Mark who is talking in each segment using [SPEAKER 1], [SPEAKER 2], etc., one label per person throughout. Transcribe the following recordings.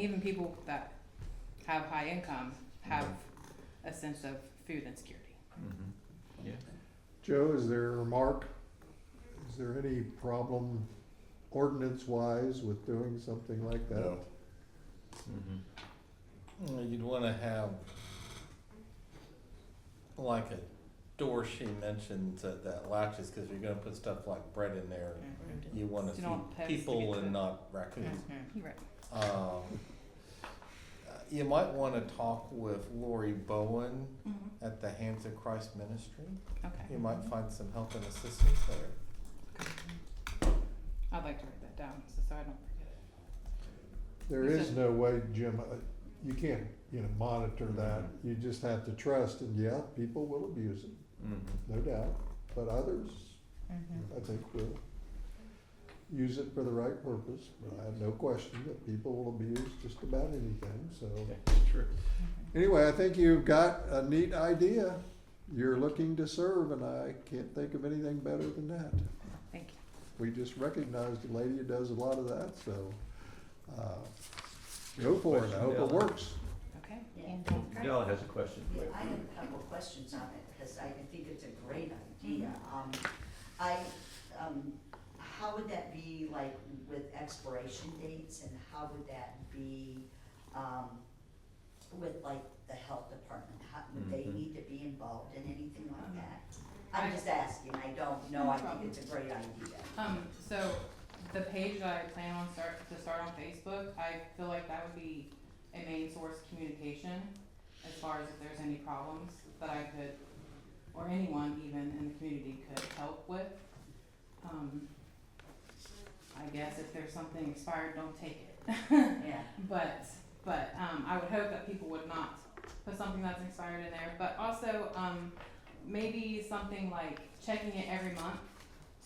[SPEAKER 1] Even people that have high income have a sense of food insecurity.
[SPEAKER 2] Joe, is there, or Mark, is there any problem ordinance-wise with doing something like that?
[SPEAKER 3] No. Uh, You'd wanna have, like a door she mentioned that, that latches, cause you're gonna put stuff like bread in there.
[SPEAKER 1] Mm-hmm.
[SPEAKER 3] You wanna
[SPEAKER 1] So you don't want
[SPEAKER 3] feed
[SPEAKER 1] pets to
[SPEAKER 3] people
[SPEAKER 1] get
[SPEAKER 3] and
[SPEAKER 1] cooked.
[SPEAKER 3] not raccoons.
[SPEAKER 1] Right.
[SPEAKER 3] Um, uh, you might wanna talk with Lori Bowen at the Hands of Christ Ministry.
[SPEAKER 1] Okay.
[SPEAKER 3] You might find some help and assistance there.
[SPEAKER 1] I'd like to write that down so, so I don't forget it.
[SPEAKER 2] There is no way, Jim, uh, you can't, you know, monitor that. You just have to trust, and yeah, people will abuse it, no doubt, but others, I think, will use it for the right purpose. I have no question that people will abuse just about anything, so.
[SPEAKER 3] True.
[SPEAKER 2] Anyway, I think you've got a neat idea. You're looking to serve, and I can't think of anything better than that.
[SPEAKER 1] Thank you.
[SPEAKER 2] We just recognized a lady who does a lot of that, so, uh, go for it. I hope it works.
[SPEAKER 1] Okay.
[SPEAKER 4] Yeah.
[SPEAKER 1] Mm-hmm.
[SPEAKER 5] Dell has a question.
[SPEAKER 4] Yeah, I have a couple of questions on it, because I think it's a great idea. Um, I, um, how would that be, like, with expiration dates, and how would that be, um, with, like, the health department? How, would they
[SPEAKER 5] Mhm.
[SPEAKER 4] need to be involved in anything like that?
[SPEAKER 1] I-
[SPEAKER 4] I'm just asking, I don't know,
[SPEAKER 1] No
[SPEAKER 4] I think
[SPEAKER 1] problem.
[SPEAKER 4] it's a great idea.
[SPEAKER 1] Um, so the page that I plan on start, to start on Facebook, I feel like that would be a main source of communication as far as if there's any problems that I could, or anyone even in the community could help with. Um, I guess if there's something expired, don't take it.
[SPEAKER 4] Yeah,
[SPEAKER 1] But, but, um, I would hope that people would not put something that's expired in there, but also, um, maybe something like checking it every month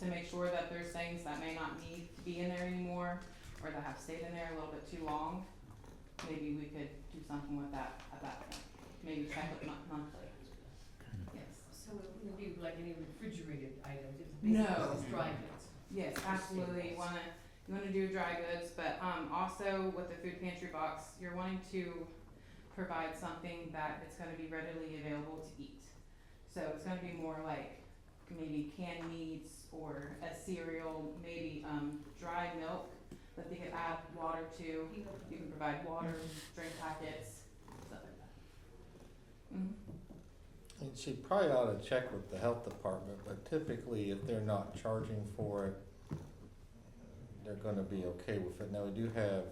[SPEAKER 1] to make sure that there's things that may not need to be in there anymore, or that have stayed in there a little bit too long. Maybe we could do something with that at that point, maybe check it mon- monthly. Yes,
[SPEAKER 6] So it wouldn't be like any refrigerated items, it's
[SPEAKER 1] No.
[SPEAKER 6] basically just dry goods.
[SPEAKER 1] yes, absolutely, you wanna, you wanna do dry goods, but, um, also with the food pantry box, you're wanting to provide something that it's gonna be readily available to eat. So it's gonna be more like maybe canned meats or a cereal, maybe, um, dry milk that they could add water to. You can provide water, drink packets, stuff like that. Mhm.
[SPEAKER 3] And she probably ought to check with the health department, but typically if they're not charging for it, they're gonna be okay with it. Now, we do have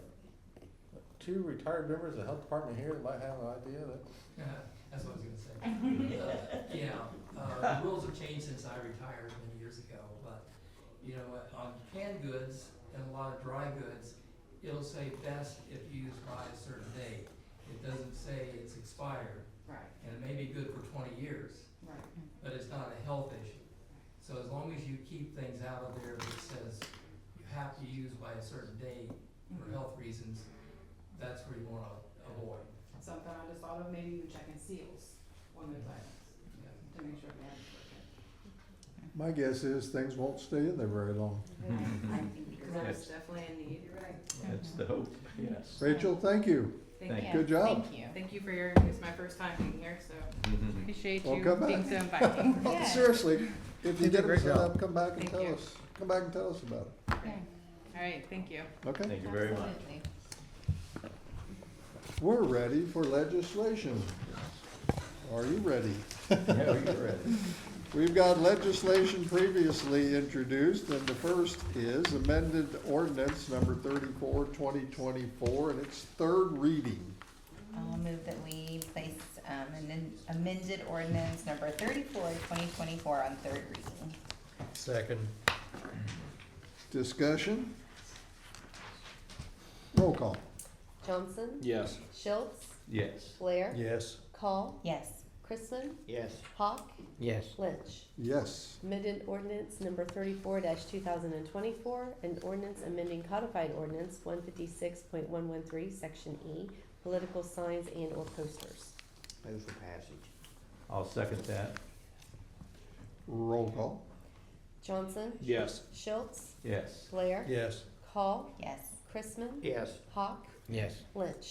[SPEAKER 3] two retired members of the health department here that might have an idea that,
[SPEAKER 7] Yeah, that's what I was gonna say. Uh, You know, uh, rules have changed since I retired many years ago, but, you know, on canned goods and a lot of dry goods, it'll say best if used by a certain date. It doesn't say it's expired,
[SPEAKER 1] Right,
[SPEAKER 7] and it may be good for twenty years,
[SPEAKER 1] right.
[SPEAKER 7] but it's not a health issue. So as long as you keep things out of there that says you have to use by a certain date for
[SPEAKER 1] Mhm.
[SPEAKER 7] health reasons, that's where you wanna avoid.
[SPEAKER 1] Something I just thought of, maybe you check in seals on those items
[SPEAKER 7] Yeah.
[SPEAKER 1] to make sure they have.
[SPEAKER 2] My guess is things won't stay in there very long.
[SPEAKER 1] Hmm.
[SPEAKER 4] I think you're
[SPEAKER 1] Because
[SPEAKER 4] right.
[SPEAKER 1] that's definitely a need.
[SPEAKER 6] You're right.
[SPEAKER 5] That's the hope, yes.
[SPEAKER 2] Rachel, thank you.
[SPEAKER 5] Thank
[SPEAKER 2] you. Good job.
[SPEAKER 1] Thank you. Thank you for your, it's my first time being here, so
[SPEAKER 5] Mm-hmm.
[SPEAKER 1] appreciate
[SPEAKER 2] Well,
[SPEAKER 1] you
[SPEAKER 2] come
[SPEAKER 1] being
[SPEAKER 2] back.
[SPEAKER 1] so inviting.
[SPEAKER 2] Oh, Seriously, if you
[SPEAKER 3] did a
[SPEAKER 2] get it
[SPEAKER 3] great
[SPEAKER 2] set
[SPEAKER 3] job.
[SPEAKER 2] up, come back and
[SPEAKER 1] Thank
[SPEAKER 2] tell
[SPEAKER 1] you.
[SPEAKER 2] us. Come back and tell us about it,
[SPEAKER 1] All right, thank you.
[SPEAKER 2] okay?
[SPEAKER 5] Thank you very much.
[SPEAKER 2] We're ready for legislation. Are you ready?
[SPEAKER 5] Yeah, you're right.
[SPEAKER 2] We've got legislation previously introduced, and the first is amended ordinance number 34, 2024, and its third reading.
[SPEAKER 8] I'll move that we place um, an amended ordinance number 34, 2024 on third reading.
[SPEAKER 2] Second. Discussion? Roll call.
[SPEAKER 9] Johnson,
[SPEAKER 5] Yes.
[SPEAKER 9] Schultz,
[SPEAKER 5] Yes.
[SPEAKER 9] Blair,
[SPEAKER 2] Yes.
[SPEAKER 9] Call,
[SPEAKER 8] Yes.
[SPEAKER 9] Chrisman,
[SPEAKER 3] Yes.
[SPEAKER 9] Hawk,
[SPEAKER 3] Yes.
[SPEAKER 9] Lynch.
[SPEAKER 2] Yes.
[SPEAKER 9] Amended ordinance number thirty-four two thousand and twenty-four, an ordinance amending codified ordinance one fifty-six point one one three, section E, political signs and or posters.
[SPEAKER 3] Move for passage.
[SPEAKER 5] I'll second that.
[SPEAKER 2] Roll call.
[SPEAKER 9] Johnson,
[SPEAKER 5] Yes.
[SPEAKER 9] Schultz,
[SPEAKER 5] Yes.
[SPEAKER 9] Blair,
[SPEAKER 3] Yes.
[SPEAKER 9] Call,
[SPEAKER 8] Yes.
[SPEAKER 9] Chrisman,
[SPEAKER 3] Yes.
[SPEAKER 9] Hawk,
[SPEAKER 3] Yes.
[SPEAKER 9] Lynch?